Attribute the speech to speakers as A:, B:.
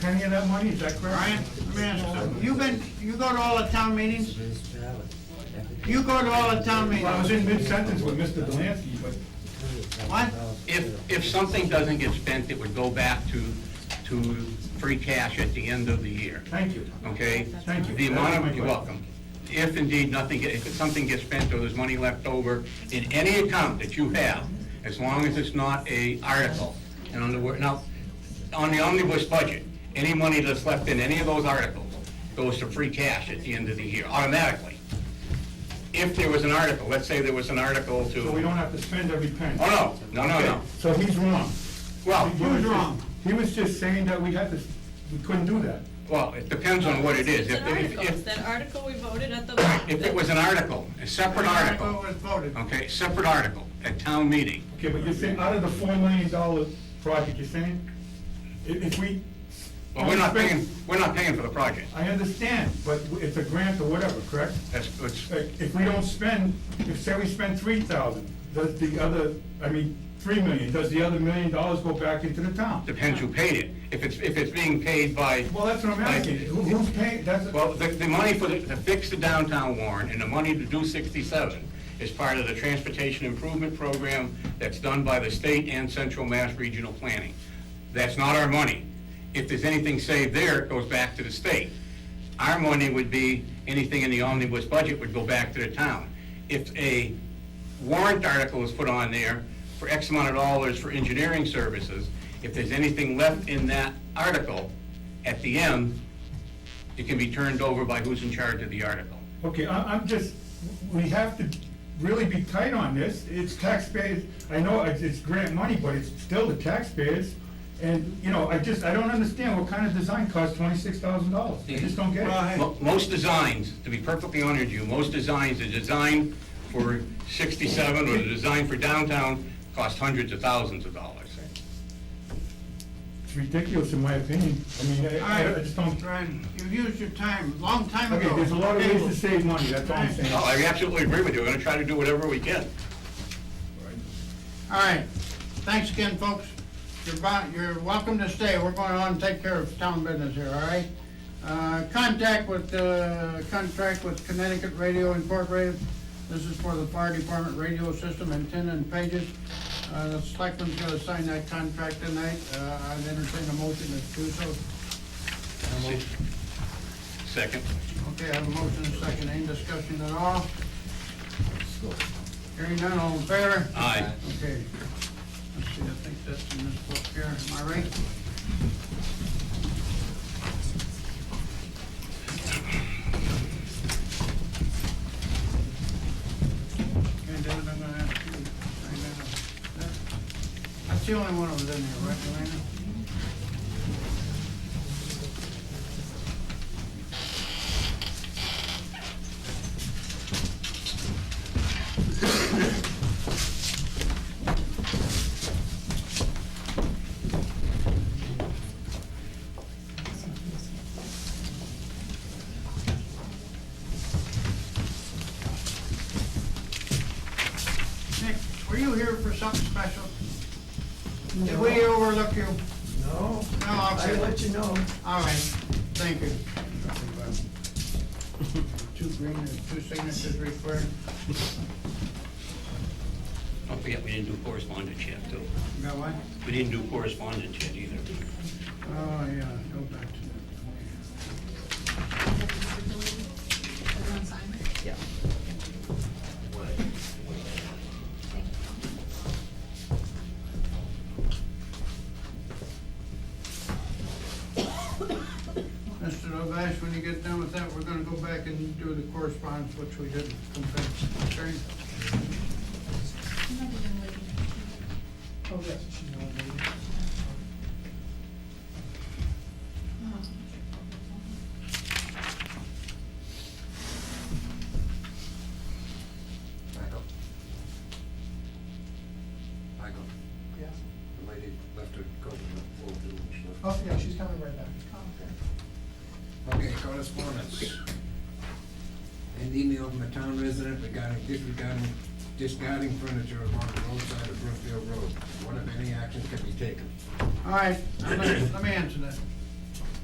A: any of that money, is that
B: Brian,
A: correct?
B: let me ask you something. You've been, you go to all the town meetings? You go to all the town
A: Well, I was
B: meetings?
A: in mid-sentence with Mr. Delansky, but
B: What?
C: If, if something doesn't get spent, it would go back to, to free cash at the end of the year,
A: thank you.
C: okay?
A: Thank you.
C: The amount
A: That's
C: of,
A: my
C: you're welcome. If indeed nothing, get- if something gets spent or there's money left over in any account that you have, as long as it's not a article, and on the, wor- now, on the omnibus budget, any money that's left in any of those articles goes to free cash at the end of the year, automatically. If there was an article, let's say there was an article to,
A: So we don't have to spend every penny.
C: oh, no, no, no, no.
A: So he's wrong.
C: Well,
A: He was wrong. He was just saying that we had to, we couldn't do that.
C: Well, it depends on what it is.
D: It's
C: If,
D: an
C: if,
D: article, it's
C: if,
D: that article we voted at the.
C: if it was an article, a separate
B: Article was
C: article,
B: voted.
C: okay, separate article, at town meeting,
A: Okay, but you're saying, out of the four million dollar project, you're saying, if, if we.
C: well, we're not paying, we're not paying for the project.
A: I understand, but it's a grant or whatever, correct?
C: That's, it's,
A: Like, If we don't spend, if say we spend three thousand, does the other, I mean, three million, does the other million dollars go back into the town?
C: depends who paid it. If it's, if it's being paid by,
A: Well, that's what I'm asking, Who- who's paying, that's,
C: well, the, the money for, the- to fix the downtown Warren and the money to do sixty-seven is part of the transportation improvement program that's done by the state and Central Mass Regional Planning. That's not our money. If there's anything saved there, it goes back to the state. Our money would be, anything in the omnibus budget would go back to the town. If a warrant article is put on there for X amount of dollars for engineering services, if there's anything left in that article, at the end, it can be turned over by who's in charge of the article.
A: okay, I, I'm just, we have to really be tight on this, it's taxpayers, I know it's, it's grant money, but it's still the taxpayers, and, you know, I just, I don't understand what kind of design costs twenty-six thousand dollars, I just don't get
B: Well,
A: it.
B: hey,
C: Mo- Most designs, to be perfectly honest with you, most designs, the design for 67 or the design for downtown cost hundreds of thousands of dollars.
A: It's ridiculous in my opinion, I mean, I, I just don't,
B: Brian, you've used your time, long time ago.
A: okay, there's a lot of ways to save money, that's all I'm saying.
C: No, I absolutely agree with you, we're gonna try to do whatever we can.
B: All right, thanks again, folks. You're bo- you're welcome to stay, we're going on and take care of town business here, all right? Uh, contact with, uh, contract with Connecticut Radio Incorporated. This is for the fire department radio system antenna and pages. Uh, the selectmen's gonna sign that contract tonight, uh, I've entertained a motion to do so.
C: Second.
B: Okay, I have a motion, and a second, any discussion at all? Hearing none, all in favor?
C: Aye.
B: Okay. Let's see, I think that's in this book here, am I right? Okay, David, I'm gonna ask you, to sign that up. That- That's the only one that was in here, right, Elena? Nick, were you here for something special? Did we overlook you?
E: No,
B: No,
E: I
B: okay,
E: let you know.
B: all right, thank you. Two green and two signatures required.
C: Don't forget, we didn't do correspondence yet, too.
B: You got one?
C: We didn't do correspondence yet either.
B: Oh, yeah, go back to
F: Yeah.
B: that. Mr. Lovash, when you get done with that, we're gonna go back and do the correspondence, which we didn't compare. Okay?
E: Oh, yes, she know me.
G: Michael? Michael,
E: Yeah.
G: the lady left her coat in the old room, so-
E: Oh, yeah, she's coming right back.
G: Okay, correspondence. An email from a town resident regarding disregarding, discarding furniture along the roadside of Brookfield Road. What if any action can be taken?
B: All right, I'm gonna- let me answer that.